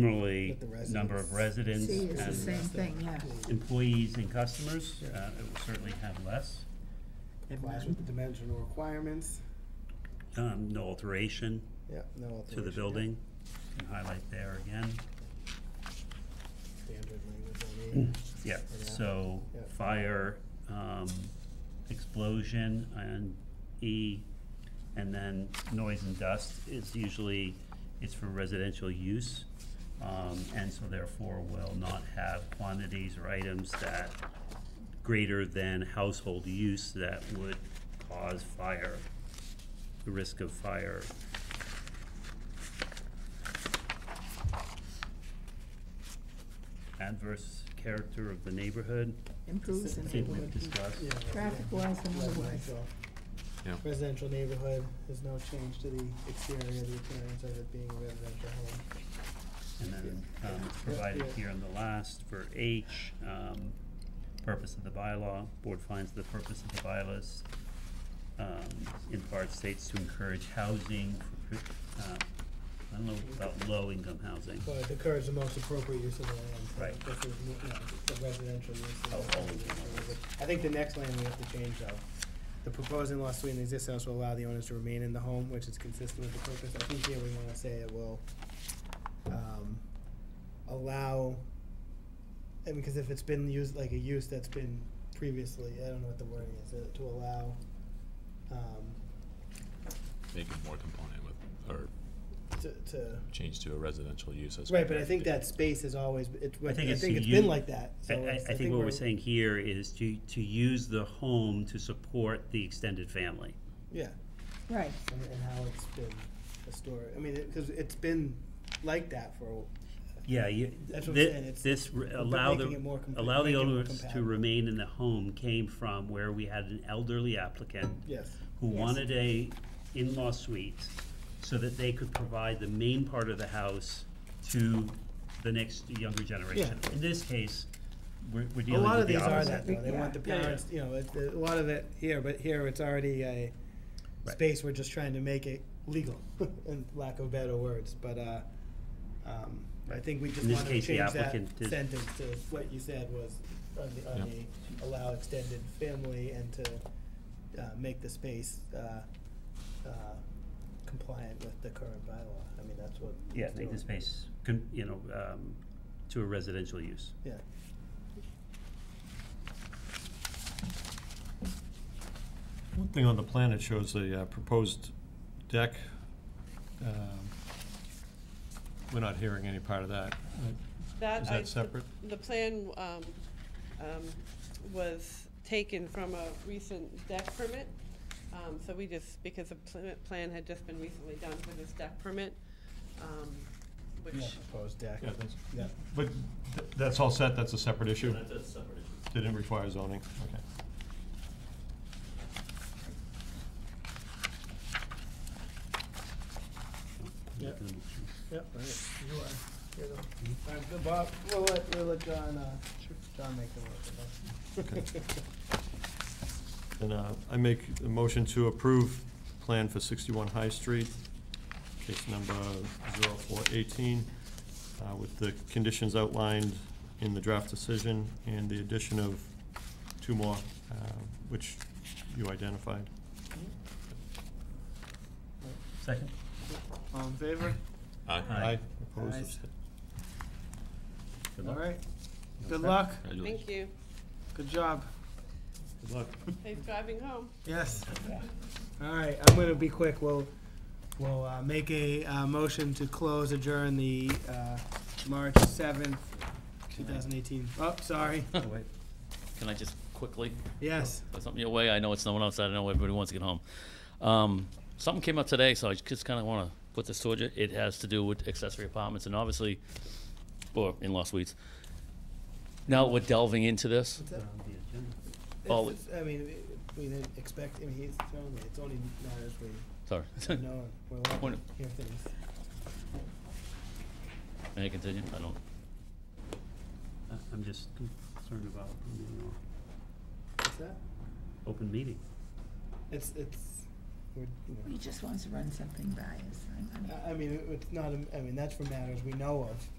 Similarly, With the number of residents residents. See, it's the and same thing, yeah. employees and customers, uh, it will certainly have less. Complies with the dimensional requirements. Um, no alteration Yeah, no alteration. to the building, can highlight there again. Standard language Mm. on E. Yeah, Yeah. so Yeah. fire, um, explosion and E, and then noise and dust is usually, it's for residential use. Um, and so therefore will not have quantities or items that greater than household use that would cause fire, the risk of fire. Adverse character of the neighborhood, Improves the I think we've neighborhood. discussed. Yeah, resi- Traffic-wise and residential. otherwise. Yeah. Residential neighborhood, there's no change to the exterior, the appearance of it being a residential home. And then, um, it's provided Yeah. here in the last for H, um, purpose of the bylaw, board finds the purpose of the bylaws, um, in part states to encourage housing for, pri- uh, I don't know about low-income housing, But it occurs the most appropriate use of the land. so Right. This is, you know, the residential use. is Oh, not oh, the yeah. residential use. I think the next line we have to change though. The proposed in-law suite and existing house will allow the owners to remain in the home, which is consistent with the purpose. I think here we wanna say it will, um, allow, I mean, cause if it's been used, like a use that's been previously, I don't know what the wording is, uh, to allow, um, Make it more compliant with, or to, to change to a residential use as. Right, but I compared think to- that space has always, it, I I think think it's it's been you- like that, so I, it's- I, I think what we're we're- saying here is to, to use the home to support the extended family. Yeah, Right, and, and how it's been a story, I mean, it, cause it's been like that for, a- Yeah, you, That's what I'm saying, thi- it's- this, re- but allow making it more the, compa- allow the making it more owners to compatible. remain in the home came from where we had an elderly applicant yes, who Yes. wanted a in-law suite so that they could provide the main part of the house to the next younger generation. Yeah. In this case, we're, we're a dealing lot with of the these opposite. are that though, they Yeah. want the Yeah, yeah. parents, you know, it, a lot of it here, but here it's already a Right. space, we're just trying to make it legal, in lack of better words, but, uh, um, I Right. think we just In this wanna case, change the that applicant did- sentence to what you said was on the, on Yeah. the allow extended family and to, uh, make the space, uh, uh, compliant with the current bylaw, I mean, that's what. Yeah, it's make the doing. space, con- you know, um, to a residential use. Yeah, One thing on the plan, it shows the uh, proposed deck. Um, We're not hearing any part of that. That Is I- that separate? The plan um, um, was taken from a recent deck permit. Um, So we just, because the pl- plan had just been recently done for this deck permit, um, yeah, which, proposed deck, Yeah, that's- yeah. But th- that's all set, that's a separate issue? a separate issue. Didn't require zoning, okay. Yep. Yep, right, you are, here though. Mm-hmm. All right, good, Bob, we'll let, we'll let John, uh, John make the work. Okay. And uh, I make a motion to approve plan for 61 High Street, case number 0418, uh, with the conditions outlined in the draft decision and the addition of two more, uh, which you identified. Second? All in favor? Aye. Aye. Opposed, Ayes. abst- Good All luck. right, good luck, Congratulations. thank you. good job, Good luck. Safe driving home. yes. All right, I'm gonna be quick, we'll, we'll, uh, make a, uh, motion to close adjourn the, uh, March seventh, two thousand eighteen. Oh, sorry, Can I just quickly yes, put something away? I know it's no one else. I know everybody wants to get home. Um, something came up today, so I just kind of want to put this toward you. It has to do with accessory apartments and obviously, or in-law suites. Now we're delving into this. that? On Uh, the agenda. Oh. It's- it's- I mean, we- we didn't expect, I mean, he's telling me, it's only matters we Sorry. know, we're allowed Point to of- hear things. May I continue? I don't. I- I'm just concerned about, you know, What's that? open meeting. It's, it's, We're, you know. He just wants to run something by us. I- I mean- I- I mean, it- it's not, a- I mean, that's for matters we know of,